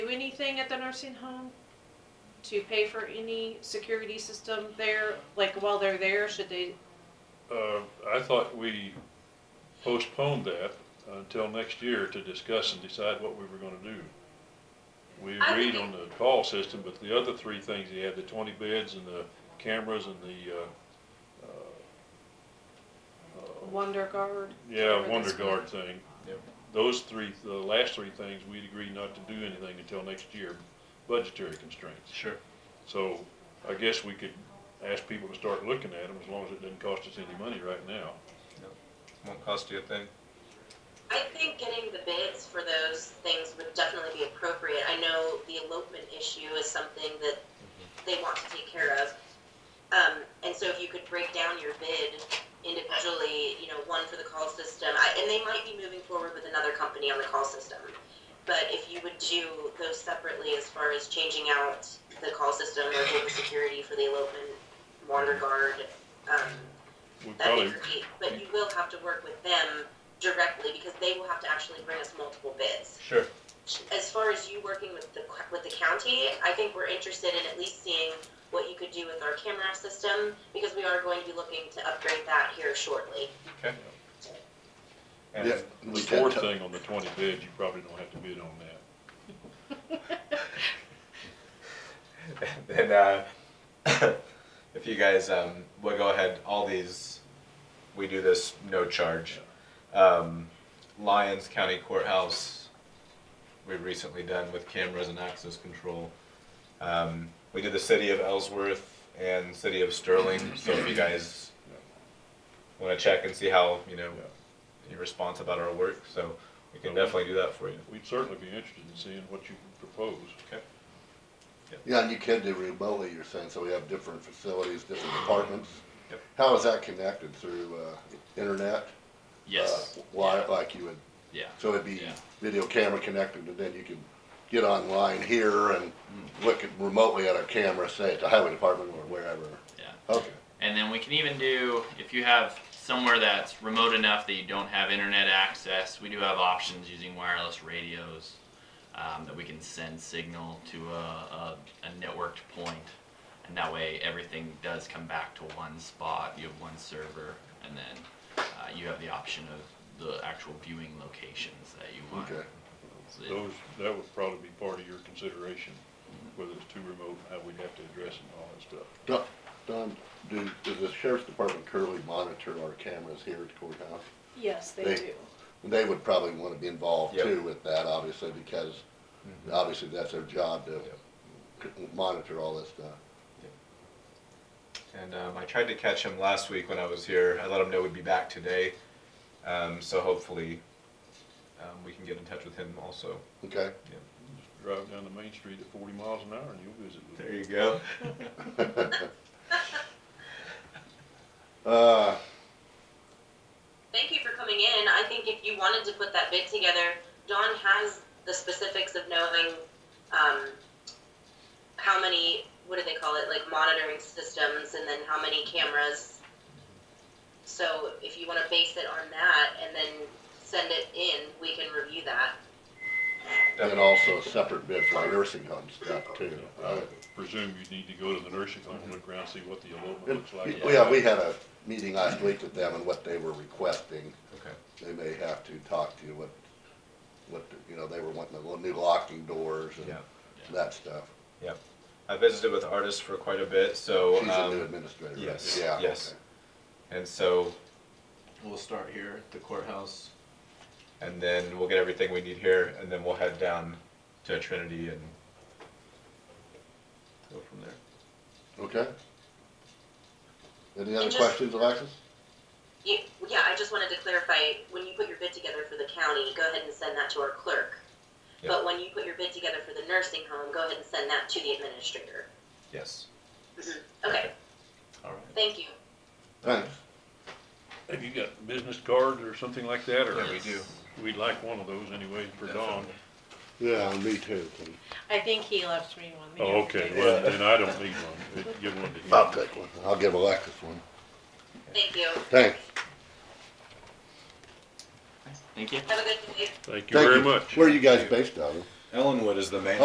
anything at the nursing home to pay for any security system there, like while they're there, should they, Uh, I thought we postponed that until next year to discuss and decide what we were gonna do. We I agreed think- on the call system, but the other three things he had, the twenty beds and the cameras and the, uh, Wonder Guard? yeah, whatever Wonder that's Guard thing. Yep. Those three, the last three things, we'd agreed not to do anything until next year, budgetary constraints. Sure. So I guess we could ask people to start looking at them as long as it doesn't cost us any money right now. Won't cost you a thing. I think getting the bids for those things would definitely be appropriate. I know the elopement issue is something that they want to take care of. Um, and so if you could break down your bid individually, you know, one for the call system, I, and they might be moving forward with another company on the call system. But if you would do those separately as far as changing out the call system or doing security for the elopement, wander guard, um, We That'd probably, be great, but you will have to work with them directly because they will have to actually bring us multiple bids. Sure. As far as you working with the, with the county, I think we're interested in at least seeing what you could do with our camera system because we are going to be looking to upgrade that here shortly. And Yeah. the we can't fourth tou- thing on the twenty beds, you probably don't have to bid on that. then uh, if you guys um, will go ahead, all these we do this no charge. Um, Lyons County Courthouse we've recently done with cameras and access control. Um, we did the city of Ellsworth and city of Sterling. So if you guys want to check and see how you know your response about our work, so we can definitely do that for you. We'd certainly be interested in seeing what you propose. Yeah, and you can do remotely, you're saying, so we have different facilities, different departments. Yep. How is that connected through, uh, internet? Yes. Uh, Why, like you would, Yeah. so it'd be Yeah. video camera connected, and then you could get online here and look at remotely at a camera, say at the highway department or wherever. Yeah. Okay, And then we can even do, if you have somewhere that's remote enough that you don't have internet access, we do have options using wireless radios um, that we can send signal to a, a, a networked point. And that way everything does come back to one spot. You have one server, and then uh, you have the option of the actual viewing locations that you want. okay. So it- Those, that would probably be part of your consideration, whether it's too remote and how we'd have to address it and all that stuff. Don, Don, do, does the sheriff's department currently monitor our cameras here at the courthouse? Yes, they They- do. They would probably wanna be involved Yep. Mm-hmm. too with that, obviously, because obviously that's their job to Yep. c- monitor all this stuff. And um, I tried to catch him last week when I was here. I let him know we'd be back today. Um, so hopefully um, we can get in touch with him also. Okay, Just Drive down the main street at forty miles an hour and you'll visit with There them. you go. uh, Thank you for coming in. I think if you wanted to put that bid together, Dawn has the specifics of knowing, um, how many, what do they call it, like monitoring systems and then how many cameras. So if you wanna base it on that and then send it in, we can review that. and also a separate bid for our nursing home stuff too. I would presume you'd need to go to the nursing home, look around, see what the elopement looks like. We- Yeah, we had a meeting last week with them and what they were requesting. Okay. They may have to talk to you what, what, you know, they were wanting the new locking doors and Yeah. that stuff. I visited with artists for quite a bit. So She's a new um, administrator, right? yes, Yeah, yes. okay. and so we'll start here at the courthouse, and then we'll get everything we need here, and then we'll head down to Trinity and go from there. Okay. Any other just- questions, Alexis? You, yeah, I just wanted to clarify, when you put your bid together for the county, go ahead and send that to our clerk. Yeah. But when you put your bid together for the nursing home, go ahead and send that to the administrator. Yes. Okay, All right. thank you. Thanks. Have you got business cards or something like that, or? Yeah, we do. We'd like one of those anyway for Dawn. Definitely. Yeah, me too. I think he left me one. the Oh, other okay, day. well, then I don't need one, but give one to him. I'll take one. I'll give Alexis one. Thank you. Thanks. Thank you. Have a good day. Thank you Thank very much. Where are you guys based out of? Ellenwood is the main